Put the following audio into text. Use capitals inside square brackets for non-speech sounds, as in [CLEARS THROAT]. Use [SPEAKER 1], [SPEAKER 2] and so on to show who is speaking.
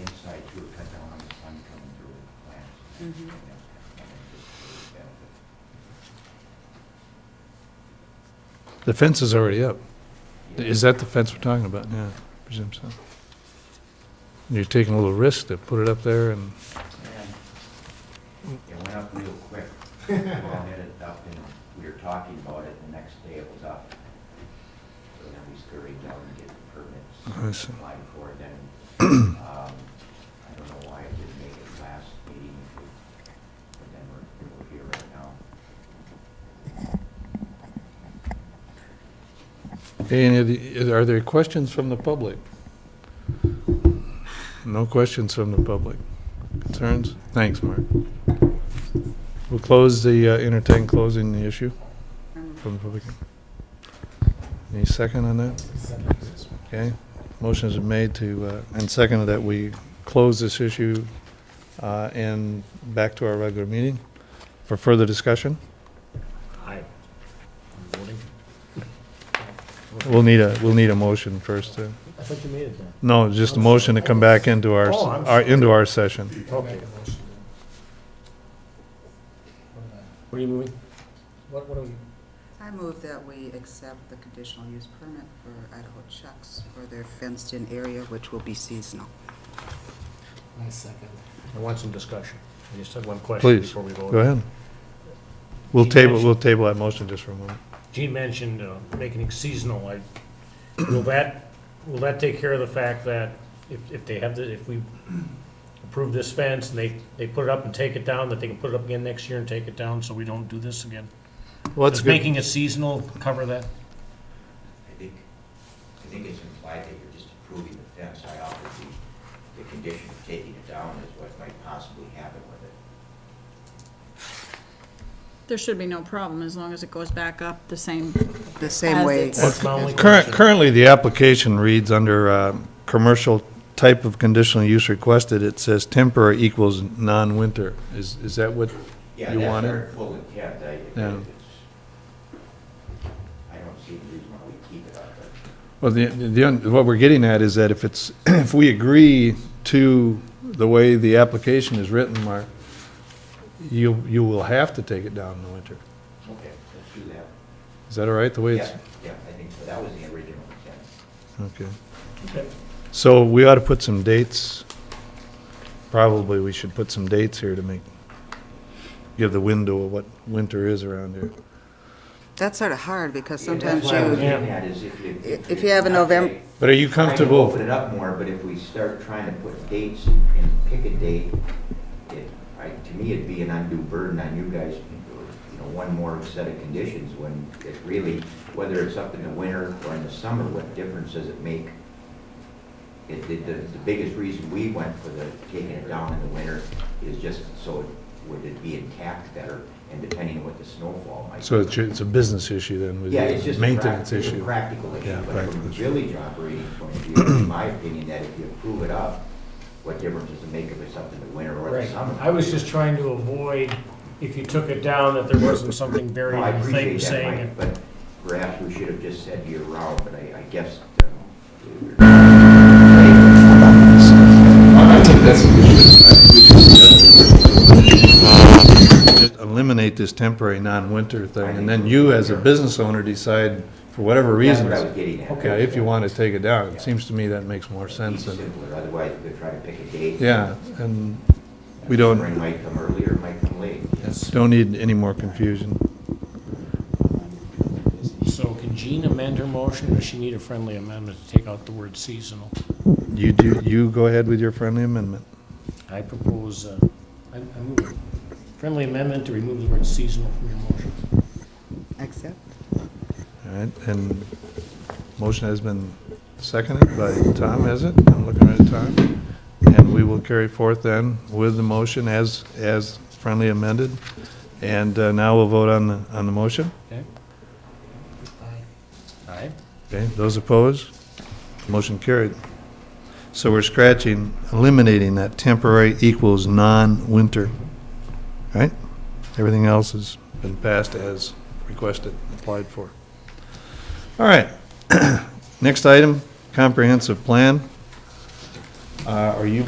[SPEAKER 1] you would cut down on the sun coming through the plants. and
[SPEAKER 2] Mhm.
[SPEAKER 1] everything else coming through the benefit.
[SPEAKER 3] The fence is already up.
[SPEAKER 1] Yeah.
[SPEAKER 3] Is that the fence we're talking about? Yeah, I presume so. You're taking a little risk to put it up there and,
[SPEAKER 1] And It went up real quick. Well, I had it up and we were talking about it, the next day it was up. So then we scurried down to get the
[SPEAKER 3] I
[SPEAKER 1] permits,
[SPEAKER 3] see.
[SPEAKER 1] applied for it,
[SPEAKER 3] [CLEARS THROAT]
[SPEAKER 1] then, um, I don't know why I didn't make it last meeting, but then we're, we're here right now.
[SPEAKER 3] any of the, are there questions from the public? No questions from the public. Concerns? Thanks, Mark. We'll close the, uh, entertain closing the issue from the public. Any second on that? Okay, motion is made to, uh, and seconded that we close this issue uh, and back to our regular meeting for further discussion.
[SPEAKER 4] Aye.
[SPEAKER 3] We'll need a, we'll need a motion first. to-
[SPEAKER 4] I thought you made it then.
[SPEAKER 3] No, just a motion to come back into our,
[SPEAKER 4] Oh, I'm
[SPEAKER 3] our- into our session.
[SPEAKER 4] Okay. What are you moving?
[SPEAKER 5] What, what are we,
[SPEAKER 2] I move that we accept the conditional use permit for Idaho Chucks for their fenced-in area, which will be seasonal.
[SPEAKER 5] I second.
[SPEAKER 4] I want some discussion. I just had one question
[SPEAKER 3] Please,
[SPEAKER 4] before we vote.
[SPEAKER 3] go ahead. We'll
[SPEAKER 4] Keep
[SPEAKER 3] table,
[SPEAKER 4] action.
[SPEAKER 3] we'll table that motion just for a moment.
[SPEAKER 4] Gene mentioned uh, making it seasonal. I- Will that, will that take care of the fact that if, if they have, the if we approve this fence and they, they put it up and take it down, that they can put it up again next year and take it down, so we don't do this again?
[SPEAKER 3] Well, that's
[SPEAKER 4] Does
[SPEAKER 3] good.
[SPEAKER 4] making it seasonal cover that?
[SPEAKER 1] I think, I think it's implied that you're just approving the fence. I offered the, the condition of taking it down is what might possibly happen with it.
[SPEAKER 6] There should be no problem as long as it goes back up the same.
[SPEAKER 2] The same
[SPEAKER 6] As
[SPEAKER 2] way,
[SPEAKER 6] it's-
[SPEAKER 4] That's my only
[SPEAKER 3] Current,
[SPEAKER 4] question.
[SPEAKER 3] currently, the application reads under, um, commercial type of conditional use requested, it says temporary equals non-winter. Is, is that what
[SPEAKER 1] Yeah,
[SPEAKER 3] You want
[SPEAKER 1] that's
[SPEAKER 3] it?
[SPEAKER 1] our full intent, I, if
[SPEAKER 3] Yeah.
[SPEAKER 1] it's, I don't see the reason why we keep it up, but
[SPEAKER 3] Well, the, the, un- what we're getting at is that if it's, [CLEARS THROAT] if we agree to the way the application is written, Mark, you, you will have to take it down in the winter.
[SPEAKER 1] okay, let's do that.
[SPEAKER 3] Is that all right, the way it's?
[SPEAKER 1] Yeah, yeah, I think so, that was the original intent.
[SPEAKER 3] Okay.
[SPEAKER 4] Okay.
[SPEAKER 3] So we ought to put some dates. Probably we should put some dates here to make, give the window of what winter is around here.
[SPEAKER 2] that's sort of hard because
[SPEAKER 1] Yeah,
[SPEAKER 2] sometimes
[SPEAKER 1] That's why I was
[SPEAKER 2] you,
[SPEAKER 4] Yeah.
[SPEAKER 1] getting at is if you.
[SPEAKER 2] If- if you have a November-
[SPEAKER 3] But are you
[SPEAKER 1] Trying to
[SPEAKER 3] comfortable?
[SPEAKER 1] Open it up more, but if we start trying to put dates and pick a date, it, I, to me, it'd be an undue burden on you guys. You know, one more set of conditions when it really, whether it's up in the winter or in the summer, what difference does it make? It, the, the the biggest reason we went for the, taking it down in the winter is just so it, would it be intact better and depending on what the snowfall might.
[SPEAKER 3] So
[SPEAKER 1] be.
[SPEAKER 3] it's, it's a business issue then, with
[SPEAKER 1] Yeah, it's
[SPEAKER 3] the
[SPEAKER 1] just. a prac-
[SPEAKER 3] maintenance
[SPEAKER 1] it's a
[SPEAKER 3] issue.
[SPEAKER 1] Practical
[SPEAKER 3] Yeah,
[SPEAKER 1] issue, but from
[SPEAKER 3] practical
[SPEAKER 1] a
[SPEAKER 3] issue.
[SPEAKER 1] village operating point of view, in my opinion, that if you prove it up, what difference does it make if it's up in the winter or the
[SPEAKER 4] Right.
[SPEAKER 1] summer?
[SPEAKER 4] I was just trying to avoid, if you took it down, that there wasn't something
[SPEAKER 1] No,
[SPEAKER 4] buried
[SPEAKER 1] I
[SPEAKER 4] in the thing
[SPEAKER 1] appreciate that,
[SPEAKER 4] saying it.
[SPEAKER 1] Mike, but perhaps we should have just said year round, but I, I guess. uh, um,
[SPEAKER 3] Just eliminate this temporary non-winter thing, and then you, as a business owner, decide, for whatever
[SPEAKER 1] That's what I was
[SPEAKER 3] reasons,
[SPEAKER 1] getting at.
[SPEAKER 3] yeah, if you want to take it down. It seems to me that makes more sense
[SPEAKER 1] Be
[SPEAKER 3] than,
[SPEAKER 1] simpler, otherwise we're gonna try to pick a date.
[SPEAKER 3] yeah, and we
[SPEAKER 1] Spring
[SPEAKER 3] don't,
[SPEAKER 1] might come earlier, might come late.
[SPEAKER 3] don't need any more confusion.
[SPEAKER 4] So can Jean amend her motion, or does she need a friendly amendment to take out the word seasonal?
[SPEAKER 3] You do, you go ahead with your friendly amendment.
[SPEAKER 4] I propose, uh, I I move a friendly amendment to remove the word seasonal from your motion.
[SPEAKER 2] accept.
[SPEAKER 3] All right, and motion has been seconded by Tom, has it? I'm looking at Tom. And we will carry forth then with the motion as, as friendly amended. And uh, now we'll vote on, the on the motion.
[SPEAKER 4] Okay? Aye.
[SPEAKER 3] Okay, those opposed? Motion carried. So we're scratching, eliminating that temporary equals non-winter. Right? Everything else has been passed as requested, applied for. All right. [CLEARS THROAT] Next item, comprehensive plan. Uh, Are you